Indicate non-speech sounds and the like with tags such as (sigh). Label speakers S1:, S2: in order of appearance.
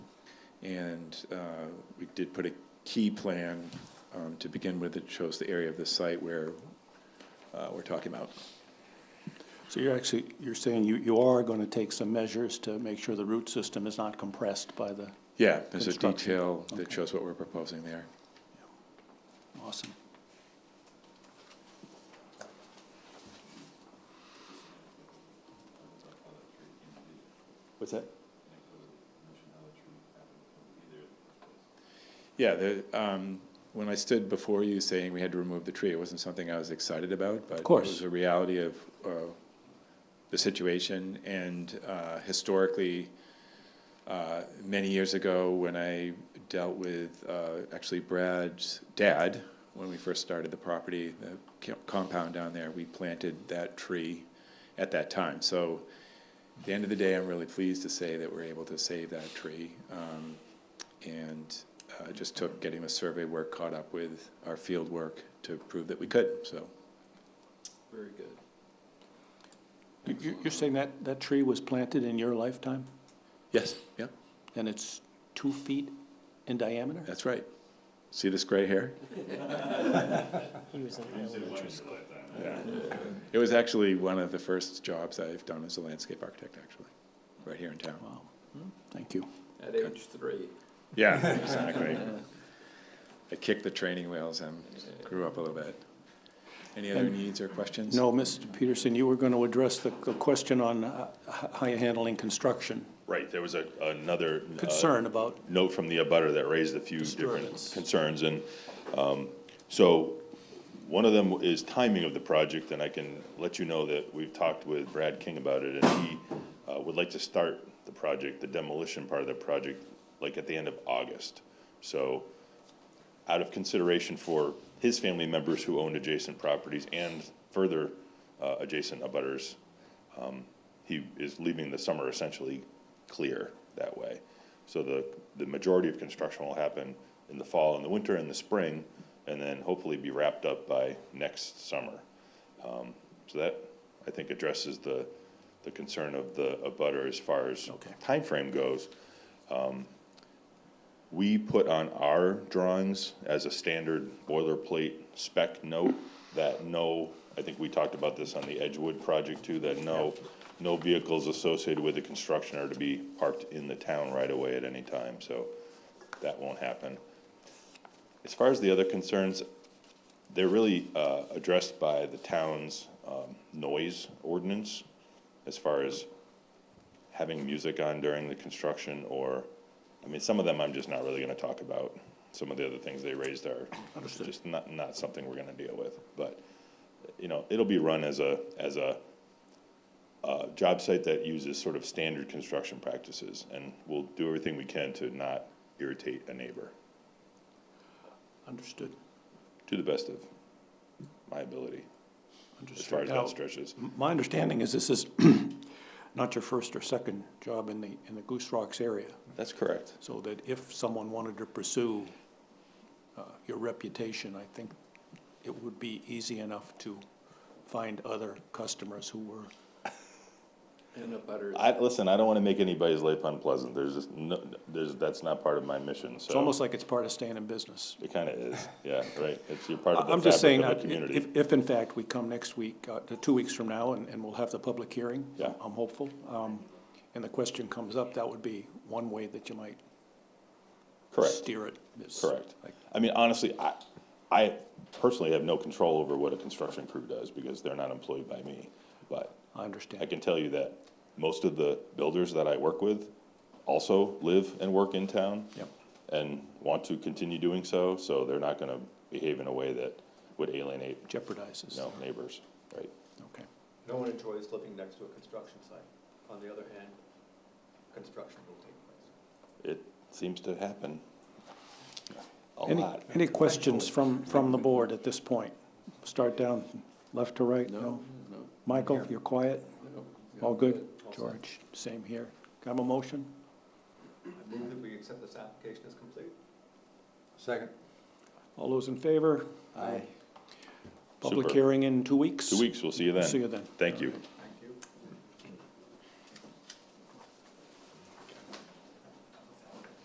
S1: And uh, we did put a key plan um, to begin with that shows the area of the site where uh, we're talking about.
S2: So you're actually, you're saying you, you are going to take some measures to make sure the root system is not compressed by the,
S1: Yeah, there's a
S2: Construction,
S1: detail that
S2: okay.
S1: shows what we're proposing there.
S2: awesome. What's that?
S1: Yeah, the, um, when I stood before you saying we had to remove the tree, it wasn't something I was excited about, but
S2: course.
S1: it was a reality of uh, the situation. And uh, historically, uh, many years ago, when I dealt with uh, actually Brad's dad, when we first started the property, the co- compound down there, we planted that tree at that time. So at the end of the day, I'm really pleased to say that we're able to save that tree. Um, and uh, it just took getting the survey work caught up with our field work to prove that we could, so.
S3: Very good.
S2: You- you- You're saying that, that tree was planted in your lifetime,
S1: Yes. Yeah,
S2: and it's two feet in diameter?
S1: that's right. See this gray hair?
S4: He was in elementary school.
S1: It was actually one of the first jobs I've done as a landscape architect, actually, right here in town.
S2: Wow, thank you.
S3: At age three.
S1: Yeah, exactly. I kicked the training wheels and grew up a little bit. Any other needs or questions?
S2: No, Mr. Peterson, you were going to address the the question on uh, h- how you're handling construction,
S5: Right, there was a, another. uh,
S2: concern about
S5: Note from the abutter that raised a few different
S2: Disturbance.
S5: concerns, and, um, so, one of them is timing of the project, and I can let you know that we've talked with Brad King about it, and he, uh, would like to start the project, the demolition part of the project, like at the end of August. So, out of consideration for his family members who owned adjacent properties and further, uh, adjacent abutters, he is leaving the summer essentially clear that way. So the, the majority of construction will happen in the fall and the winter and the spring, and then hopefully be wrapped up by next summer. Um, So that, I think, addresses the, the concern of the abutter as far as
S2: Okay.
S5: time frame goes. Um, We put on our drawings as a standard boilerplate spec note that no, I think we talked about this on the Edgewood project too, that no, no vehicles associated with the construction are to be parked in the town right away at any time, so that won't happen. As far as the other concerns, they're really uh, addressed by the town's um, noise ordinance as far as having music on during the construction or, I mean, some of them I'm just not really gonna talk about. Some of the other things they raised are just not, not something we're gonna deal with. But, you know, it'll be run as a, as a uh, job site that uses sort of standard construction practices. And we'll do everything we can to not irritate a neighbor
S2: Understood,
S5: to the best of my ability, as far
S2: understood.
S5: as that
S2: Now,
S5: stretches.
S2: m- My understanding is this is (clears throat) not your first or second job in the, in the Goose Rocks area,
S5: That's correct.
S2: so that if someone wanted to pursue uh, your reputation, I think it would be easy enough to find other customers who were,
S3: And a butter.
S5: I, listen, I don't wanna make anybody's life unpleasant, there's just, no, there's, that's not part of my mission,
S2: it's
S5: so.
S2: almost like it's part of staying in business.
S5: It kinda is, yeah, right, it's, you're part of
S2: I'm
S5: the
S2: just saying, uh,
S5: fabric of
S2: that
S5: the
S2: if,
S5: community.
S2: if in fact we come next week, uh, the two weeks from now, and, and we'll have the public hearing.
S5: Yeah.
S2: I'm hopeful, um, and the question comes up, that would be one way that you might
S5: Correct,
S2: steer it. is-
S5: correct.
S2: like-
S5: I mean, honestly, I, I personally have no control over what a construction crew does, because they're not employed by me. But
S2: I
S5: I
S2: understand.
S5: can tell you that most of the builders that I work with also live and work in town.
S2: Yep.
S5: and want to continue doing so, so they're not gonna behave in a way that would alienate,
S2: Jeopardizes.
S5: you know, neighbors, right?
S2: Okay.
S6: No one enjoys living next to a construction site. On the other hand, construction will take place.
S5: It seems to happen a
S2: Any,
S5: lot.
S2: any questions from, from the board at this point? Start down, left to right? No.
S3: No,
S2: Michael, you're quiet?
S3: no.
S2: All good? George, same here. Got a motion?
S6: I move that we accept this application as complete.
S3: Second.
S2: All those in favor?
S3: Aye.
S2: Public
S5: Super.
S2: hearing in two weeks?
S5: Two weeks, we'll see you then.
S2: See you then.
S5: Thank you.